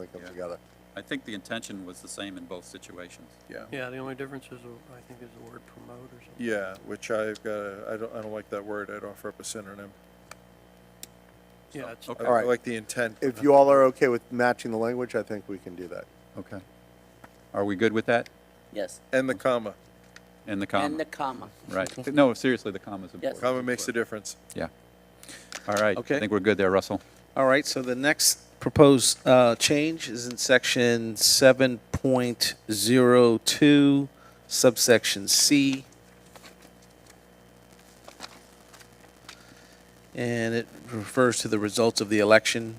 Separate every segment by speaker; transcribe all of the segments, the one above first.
Speaker 1: they come
Speaker 2: Yeah.
Speaker 1: together.
Speaker 2: I think the intention was the same in both situations.
Speaker 3: Yeah,
Speaker 4: Yeah, the only difference is, uh, I think, is the word promote or something.
Speaker 3: yeah, which I've got, a- I don't, I don't like that word, I'd offer up a synonym.
Speaker 4: Yeah, it's,
Speaker 2: Okay.
Speaker 3: I
Speaker 1: All right.
Speaker 3: like the intent.
Speaker 1: If you all are okay with matching the language, I think we can do that.
Speaker 2: Okay. Are we good with that?
Speaker 5: Yes,
Speaker 3: And the comma,
Speaker 2: And the
Speaker 5: and
Speaker 2: comma,
Speaker 5: the comma.
Speaker 2: right. No, seriously, the comma's important.
Speaker 3: comma makes a difference.
Speaker 2: Yeah. All right. I
Speaker 6: Okay.
Speaker 2: think we're good there, Russell.
Speaker 6: All right, so the next proposed uh, change is in section 7.02, subsection C. And it refers to the results of the election.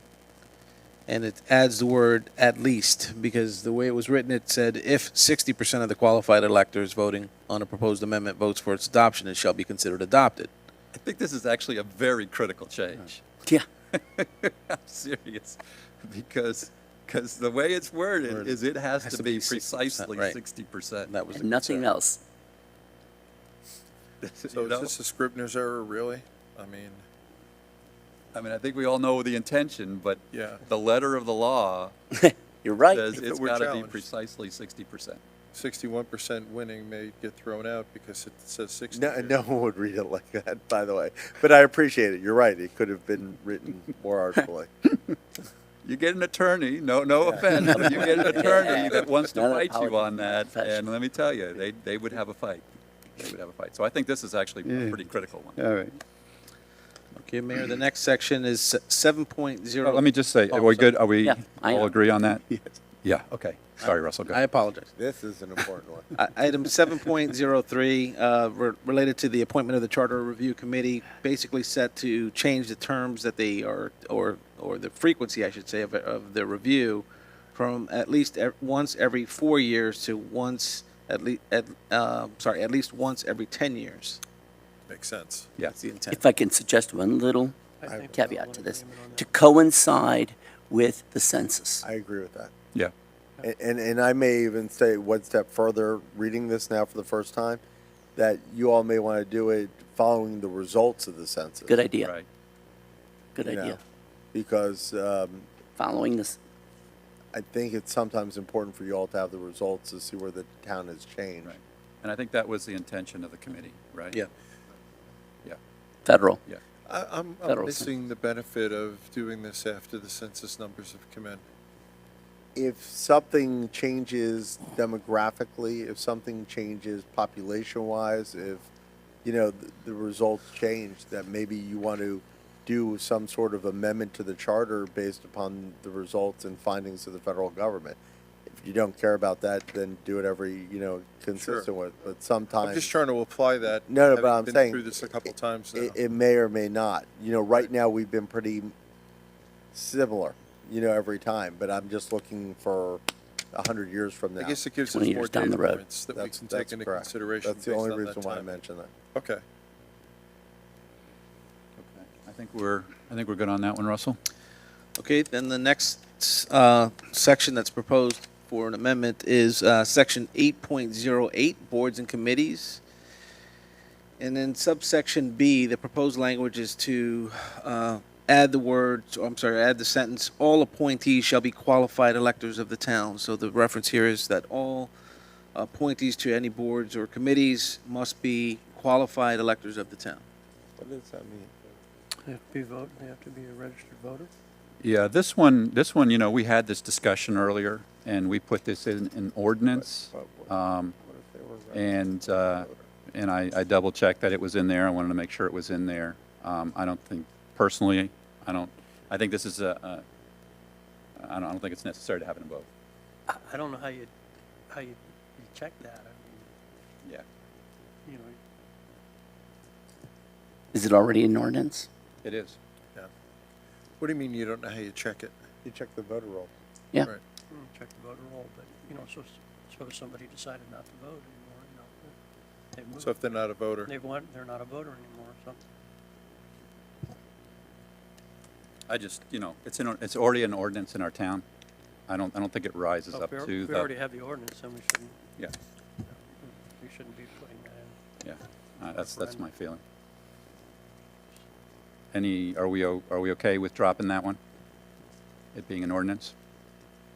Speaker 6: And it adds the word "at least" because the way it was written, it said, "If 60% of the qualified electors voting on a proposed amendment votes for its adoption, it shall be considered adopted."
Speaker 2: I think this is actually a very critical change.
Speaker 5: Yeah.
Speaker 2: I'm serious, because, because the way it's worded
Speaker 6: Worded.
Speaker 2: is it has
Speaker 6: Has
Speaker 2: to
Speaker 6: to
Speaker 2: be
Speaker 6: be 60%,
Speaker 2: precisely
Speaker 6: right.
Speaker 2: sixty percent.
Speaker 6: And that was the
Speaker 5: And nothing
Speaker 6: concern.
Speaker 5: else.
Speaker 3: So is this a Scribner's error, really? I mean,
Speaker 2: I mean, I think we all know the intention, but
Speaker 3: Yeah.
Speaker 2: the letter of the law
Speaker 5: You're right.
Speaker 2: says
Speaker 3: If it
Speaker 2: it's
Speaker 3: were
Speaker 2: gotta be
Speaker 3: challenged.
Speaker 2: precisely sixty percent.
Speaker 3: sixty-one percent winning may get thrown out because it says sixty.
Speaker 1: No,
Speaker 3: here.
Speaker 1: no one would read it like that, by the way. But I appreciate it. You're right. It could have been written more artfully.
Speaker 2: You get an attorney, no, no offense, but you get an attorney that wants to
Speaker 5: Another
Speaker 2: fight you
Speaker 5: powerful
Speaker 2: on that, and
Speaker 5: profession.
Speaker 2: let me tell you, they, they would have a fight. They would have a fight. So I think this is actually a pretty critical one.
Speaker 7: All right.
Speaker 6: Okay, Mayor, the next section is seven point zero.
Speaker 2: Let me just say, are
Speaker 6: Oh,
Speaker 2: we
Speaker 6: sorry.
Speaker 2: good? Are we
Speaker 5: Yeah, I
Speaker 2: all
Speaker 5: am.
Speaker 2: agree on that? Yeah, okay. Sorry, Russell, go
Speaker 6: I
Speaker 2: ahead.
Speaker 6: apologize.
Speaker 1: This is an important one.
Speaker 6: I- Item seven point zero three, uh, re- related to the appointment of the Charter Review Committee, basically set to change the terms that they are, or, or the frequency, I should say, of, of the review from at least ev- once every four years to once, at least, at, uh, sorry, at least once every ten years.
Speaker 3: Makes sense.
Speaker 2: Yeah.
Speaker 6: That's the intent.
Speaker 5: If I can suggest one little
Speaker 4: I think we're all
Speaker 5: caveat
Speaker 4: in
Speaker 5: to this,
Speaker 4: agreement on that.
Speaker 5: to coincide with the census.
Speaker 1: I agree with that.
Speaker 2: Yeah,
Speaker 1: A- And, and I may even say one step further, reading this now for the first time, that you all may want to do it following the results of the census.
Speaker 5: Good idea,
Speaker 2: right.
Speaker 5: good
Speaker 1: you know,
Speaker 5: idea.
Speaker 1: Because um,
Speaker 5: Following this,
Speaker 1: I think it's sometimes important for you all to have the results to see where the town has changed.
Speaker 2: Right. And I think that was the intention of the committee, right?
Speaker 6: Yeah.
Speaker 2: Yeah,
Speaker 5: federal.
Speaker 2: yeah.
Speaker 3: I, I'm, I'm
Speaker 5: Federal
Speaker 3: missing the benefit of doing this after the census numbers have come in.
Speaker 1: If something changes demographically, if something changes population-wise, if, you know, the, the results change, that maybe you want to do some sort of amendment to the charter based upon the results and findings of the federal government. If you don't care about that, then do it every, you know, consistent with, but sometimes.
Speaker 3: I'm just trying to apply that.
Speaker 1: No, no, but
Speaker 3: having
Speaker 1: I'm
Speaker 3: been
Speaker 1: saying
Speaker 3: Through this a couple times now.
Speaker 1: it, it may or may not. You know, right now we've been pretty similar, you know, every time, but I'm just looking for a hundred years from now.
Speaker 3: I guess it gives us
Speaker 5: 20 years
Speaker 3: more
Speaker 5: down
Speaker 3: data
Speaker 5: the road.
Speaker 3: points that we
Speaker 1: That's-
Speaker 3: can
Speaker 1: that's
Speaker 3: take into
Speaker 1: correct.
Speaker 3: consideration
Speaker 1: That's the
Speaker 3: based
Speaker 1: only
Speaker 3: on that
Speaker 1: reason why I
Speaker 3: time.
Speaker 1: mentioned that.
Speaker 3: Okay.
Speaker 2: Okay. I think we're, I think we're good on that one, Russell?
Speaker 6: Okay, then the next uh, section that's proposed for an amendment is uh, Section 8.08, Boards and Committees. And then subsection B, the proposed language is to uh, add the words, or I'm sorry, add the sentence, "All appointees shall be qualified electors of the town." So the reference here is that all appointees to any boards or committees must be qualified electors of the town.
Speaker 1: What does that mean?
Speaker 4: They have to be vote, they have to be a registered voter.
Speaker 2: Yeah, this one, this one, you know, we had this discussion earlier, and we put this in an ordinance. Um, And, uh, and I, I double-checked that it was in there. I wanted to make sure it was in there. Um, I don't think, personally, I don't, I think this is a, a- I don't, I don't think it's necessary to have it in both.
Speaker 4: I I don't know how you, how you, you check that, I
Speaker 2: Yeah.
Speaker 4: mean, you know,
Speaker 5: Is it already an ordinance?
Speaker 2: It is.
Speaker 3: What do you mean you don't know how you check it?
Speaker 1: You check the voter roll.
Speaker 5: Yeah.
Speaker 3: Right.
Speaker 4: you can check the voter roll, but, you know, so, s- so if somebody decided not to vote anymore, you know, they
Speaker 3: So
Speaker 4: moved,
Speaker 3: if they're not a voter,
Speaker 4: they want, they're not a voter anymore or something.
Speaker 2: I just, you know, it's in, it's already an ordinance in our town. I don't, I don't think it rises
Speaker 4: So
Speaker 2: up
Speaker 4: if Oh, we al-
Speaker 2: to
Speaker 4: If we already
Speaker 2: the,
Speaker 4: have the ordinance, then we shouldn't,
Speaker 2: yeah,
Speaker 4: we shouldn't be putting that in.
Speaker 2: yeah. Uh, That's, that's my feeling. Any, are we, o- are we okay with dropping that one? It being an ordinance?